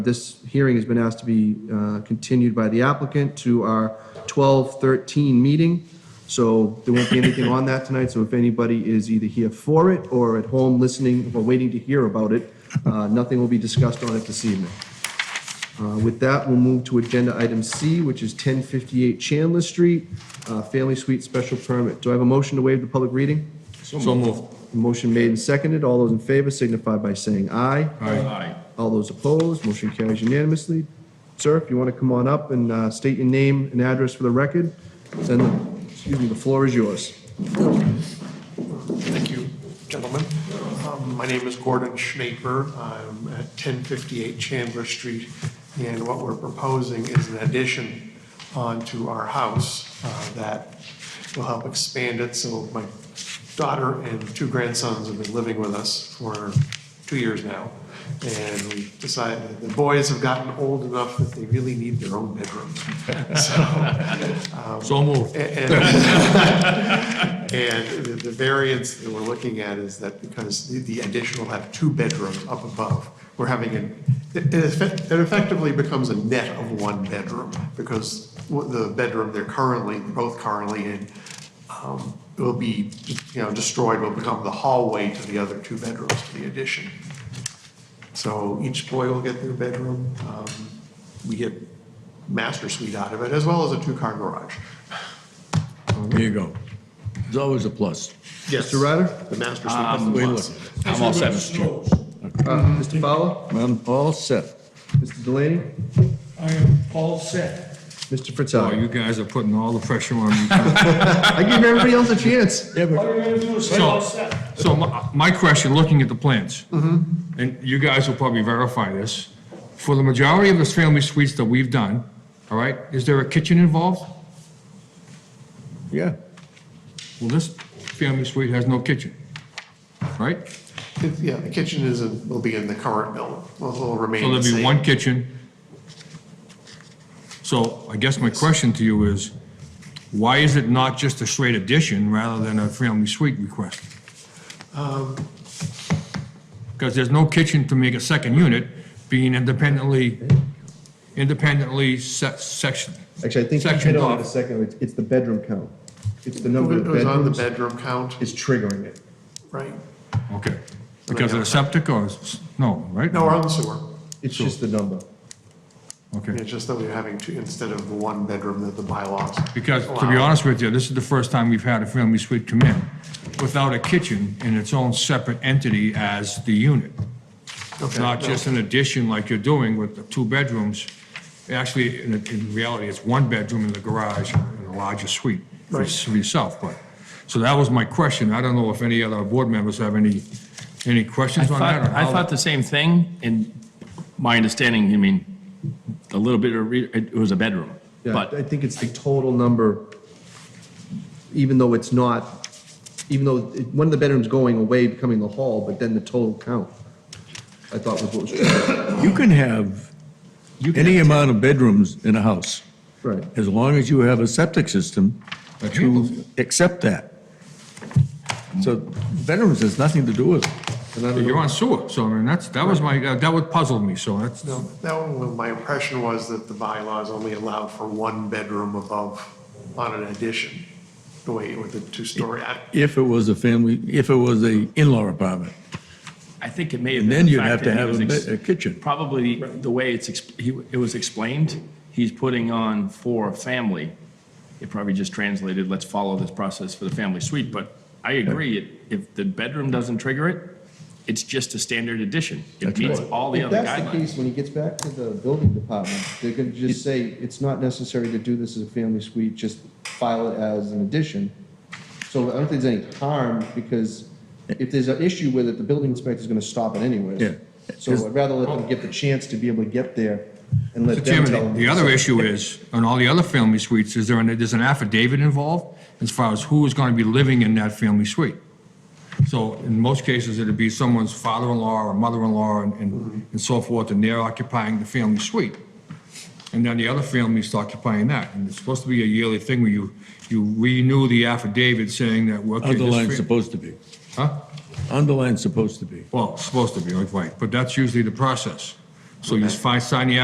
This hearing has been asked to be uh, continued by the applicant to our 12:13 meeting, so there won't be anything on that tonight, so if anybody is either here for it or at home listening or waiting to hear about it, uh, nothing will be discussed on it this evening. Uh, With that, we'll move to Agenda Item C, which is 1058 Chandler Street, uh, Family Suite Special Permit. Do I have a motion to waive the public reading? So moved. Motion made and seconded. All those in favor signify by saying aye. Aye. All those opposed, motion carries unanimously. Sir, if you want to come on up and uh, state your name and address for the record, then, the- excuse me, the floor is yours. Thank you, gentlemen. Um, My name is Gordon Schnaper. I'm at 1058 Chandler Street, and what we're proposing is an addition onto our house uh, that will help expand it, so my daughter and two grandsons have been living with us for two years now, and we decided, the boys have gotten old enough that they really need their own bedroom. So moved. And and the the variance that we're looking at is that because the- the addition will have two bedrooms up above, we're having an, it it effect- it effectively becomes a net of one bedroom, because what the bedroom they're currently, both currently in, um, will be, you know, destroyed, will become the hallway to the other two bedrooms to the addition. So each boy will get their bedroom. Um, We get master suite out of it, as well as a two-car garage. There you go. It's always a plus. Yes. Mr. Ryder? The master suite has the we plus. I'm all set, Mr. Chair. Uh, Mr. Fowler? I'm all set. Mr. Delaney? I am all set. Mr. Oh, Fratelli? you guys are putting all the pressure on me. I give everybody else a chance. All you're gonna do is say all set. So my, my question, looking at the plans, and you guys will probably verify this, for the majority of the family suites that we've done, all right, is there a kitchen involved? Yeah. Well, this family suite has no kitchen, right? It- Yeah, the kitchen is, in- will be in the current building. Well, it'll So remain the there'll be same. one kitchen. So I guess my question to you is, why is it not just a straight addition rather than a family suite request? Because there's no kitchen to make a second unit being independently, independently se- sectioned. Actually, I think you hit Sectioned on it a off. second. It's- It's the bedroom count. It's the It number of was on the bedrooms bedroom count, is triggering it. right? Okay. Because of the septic or, s- no, right? No, we're on the sewer. It's just the number. Okay. It's just that we're having two, instead of the one bedroom that the bylaws. Because, to be allow. honest with you, this is the first time we've had a family suite come in without a kitchen in its own separate entity as the unit. Okay, Not no. just an addition like you're doing with the two bedrooms. Actually, in, in reality, it's one bedroom in the garage and a larger suite for s- for yourself, but. So that was my question. I don't know if any other board members have any, any I questions on thought, that? or I how- thought the same thing, and my understanding, I mean, a little bit of, re- it was a bedroom, Yeah, I but, think it's the total number, even though it's not, even though it- one of the bedrooms going away becoming the hall, but then the total count, I thought was what was, You can have You can any amount of bedrooms in a house, right. as long as you have a septic system That handles to accept that. So bedrooms has nothing to do with it. And I don't You're know- on sewer, so I mean, that's, that was my, that would puzzle me, so that's, No, that one, well, my impression was that the bylaws only allowed for one bedroom above on an addition, the way with the two-story. I- If it was a family, if it was a in-law apartment, I think it may have and been. then the you'd fact have to that he have was a ex- bed- a kitchen. Probably the way it's, ex- he- it was explained, he's putting on for a family. It probably just translated, let's follow this process for the family suite, but I agree, it- if the bedroom doesn't trigger it, it's just a standard addition. It meets all the other If that's the guidelines. case, when he gets back to the building department, they're gonna just say, it's not necessary to do this as a family suite, just file it as an addition. So I don't think there's any harm, because if there's an issue with it, the building inspector's gonna stop it anyways. Yeah. So I'd rather let them get the chance to be able to get there and Mr. let them Chairman, tell the- them. the other issue is, on all the other family suites, is there, an- there's an affidavit involved as far as who is going to be living in that family suite. So in most cases, it'd be someone's father-in-law or mother-in-law and- and, and so forth, and they're occupying the family suite. And then the other family's occupying that. And it's supposed to be a yearly thing where you, you renew the affidavit saying that, well, okay, Underline's this fa- supposed to be. Huh? Underline's supposed to be. Well, it's supposed to be, right, right, but that's usually the process. So you find, sign the